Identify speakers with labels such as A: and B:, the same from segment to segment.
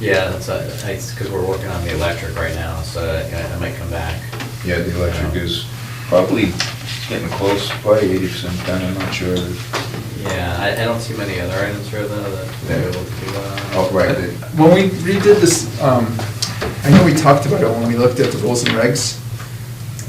A: Yeah, that's, because we're working on the electric right now, so I I might come back.
B: Yeah, the electric is probably getting close, probably eighty percent done, I'm not sure.
A: Yeah, I, I don't see many other items here though that we're able to do. uh,
B: Oh, right, the-
C: When we redid this, um, I know we talked about it when we looked at the rules and regs,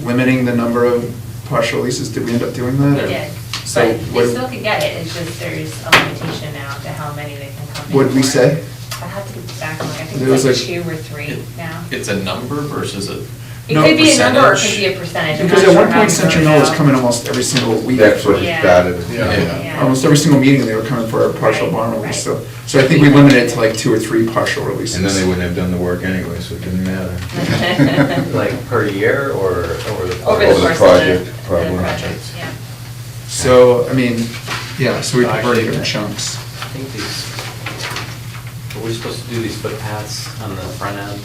C: limiting the number of partial leases, did we end up doing
A: Yeah.
C: that?
A: We
D: It did,
C: So
D: but
C: what-
D: they still could get it, it's just there's a limitation now to how many they can come in for.
C: What'd we say?
D: I have to go back, and look. I think
C: There was
D: it's like two
C: like-
D: or three now.
E: It's a number versus a.
D: It
C: no,
D: could be a number or it could be a percentage. I'm
C: Because
D: not
C: at
D: sure
C: one
D: how
C: point
D: it's broken
C: Century Mill was
D: out.
C: coming almost every single week.
B: that's what it
D: Yeah.
B: started.
E: Yeah.
D: Yeah.
C: Almost every single meeting, they were coming for a partial
D: Right,
C: bond
D: right.
C: release, so, so I think we limited it to like two or three partial releases.
B: And then they wouldn't have done the work anyway, so it didn't matter.
A: Like per year or over the?
D: Over
B: Over
D: the
B: the
D: course
B: project,
D: of the, the
B: probably.
D: project, yeah.
C: So, I mean, yeah, so we converted it in
A: Actually,
C: chunks.
A: I think these, were we supposed to do these footpaths on the front end?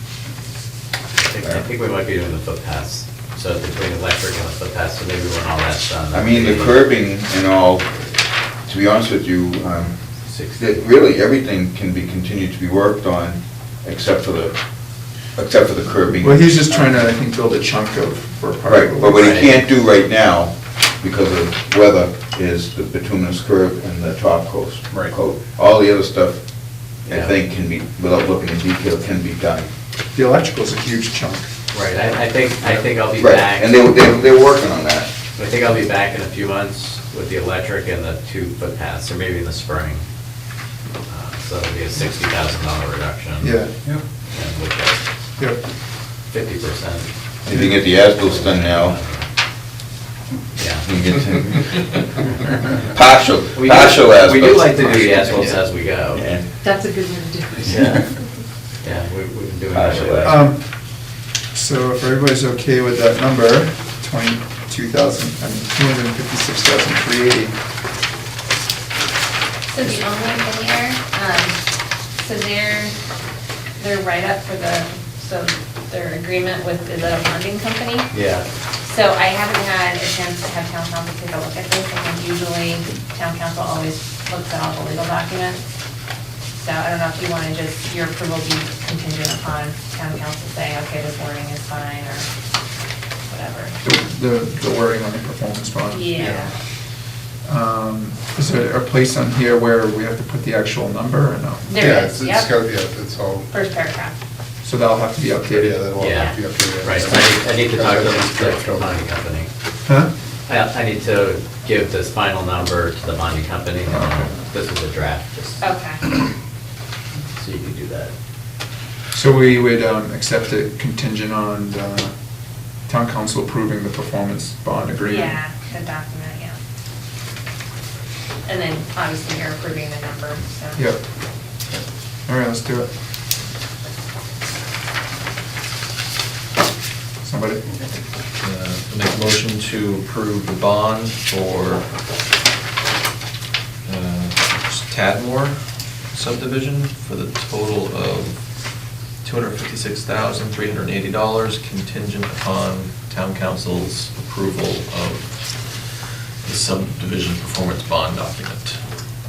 A: I think- I think we might be doing the footpaths, so between electric and the footpaths, so maybe when all that's done.
B: I mean, the curbing and all, to be honest with you, um, that
A: Sixty.
B: really everything can be continued to be worked on except for the, except for the curbing.
C: Well, he's just trying to, I think, build a chunk of, for a partial
B: Right,
C: release.
B: but what he
A: Right.
B: can't do right now, because of weather, is the bituminous curb and the top coat.
A: Right.
B: coat. All the other stuff, I
A: Yeah.
B: think, can be, without looking in detail, can be done.
C: The electrical's a huge chunk.
A: Right, I, I think, I think I'll be
B: Right,
A: back.
B: And they, they, they're working on that.
A: I think I'll be back in a few months with the electric and the two footpaths, or maybe in the spring. Uh, So it'll be a sixty thousand dollar reduction.
C: Yeah,
B: Yep.
A: And with that,
C: yeah.
A: fifty percent.
B: If you can get the as-built done now, you
A: Yeah.
B: can get to, partial, partial as-built.
A: We do like to do the as-bills as we go.
B: Yeah.
F: That's a good way to do it.
A: Yeah, Yeah, we- we've been doing
B: Partial
A: that.
B: as-built.
C: Um, So if everybody's okay with that number, 22,000, I mean, 256,380.
D: So the only thing here, um, so their, their write-up for the, so their agreement with the bonding company.
A: Yeah,
D: So I haven't had a chance to have town council take a look at this, and usually town council always looks at all the legal documents. So I don't know if you want to just, your approval be contingent upon town council saying, okay, this warning is fine, or whatever.
C: The, the wording on the performance bond.
D: Yeah.
C: Um, Is there a place on here where we have to put the actual number or no?
D: There it
G: it's-
D: is,
G: It's got,
D: yep,
G: yeah, it's all,
D: first paragraph.
C: So that'll have to be
G: yeah,
C: updated.
G: that'll all have to be
A: Yeah.
G: updated.
A: right, so I need- I need to talk to the- the
G: Yeah.
A: bonding company.
C: Huh?
A: I, I need to give this final number to the bonding company, and then this is a draft, just
D: Okay.
A: so you can do that.
C: So we would um, accept it contingent on uh, town council approving the performance bond agreement?
D: Yeah, the document, yeah. And then obviously you're approving the number, so.
C: Yep. All right, let's do it. Somebody?
E: Uh, Make a motion to approve the bond for uh, Tadmore subdivision for the total of $256,380 contingent upon town council's approval of the subdivision performance bond document.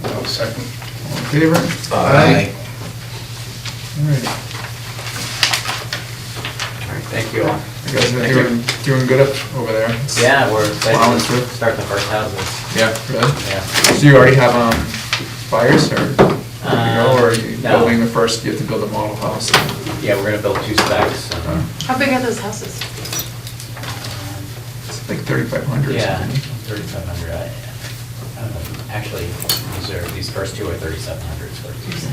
G: I'll Second.
C: All in favor? All right.
A: All right, thank you all.
C: You guys are doing, doing good up over there?
A: Yeah, we're
C: Plowing
A: excited
C: through?
A: to start the first houses,
C: Yeah. Good.
A: yeah.
C: So you already have um, buyers or, good to go, or are you
A: Uh, no.
C: building the first, you have to build a model house?
A: Yeah, we're gonna build two specs. and, um,
F: How big are those houses?
C: It's like 3,500 or
A: Yeah,
C: something.
A: thirty-seven hundred. Actually, these are, these first two are thirty-seven hundred square feet.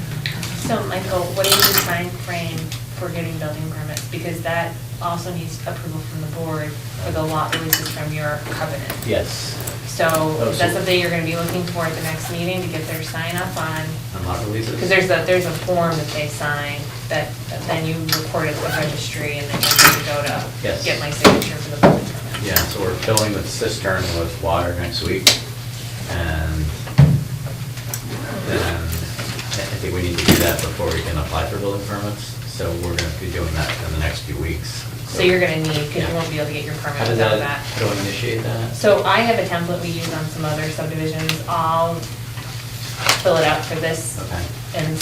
D: So Michael, what is the time frame for getting building permits? Because that also needs approval from the board for the lot releases from your covenant.
A: Yes, Oh,
D: So is that
A: Absolutely.
D: something you're gonna be looking for at the next meeting to get their sign up on?
A: on lot releases.
D: Because there's a, there's a form that they sign that that then you record at the registry and then you go
A: Yes.
D: to get my signature for the building permit.
A: Yeah, so we're filling the cistern with water next week, and then I think we need to do that before we can apply for building permits, so we're gonna be doing that in the next few weeks.
D: So you're gonna need, because
A: Yeah.
D: you won't be able to get your
A: How
D: permit
A: does
D: without
A: that,
D: that.
A: how do I initiate that?
D: So I have a template we use on some other subdivisions. I'll fill it out for this
A: Okay.
D: and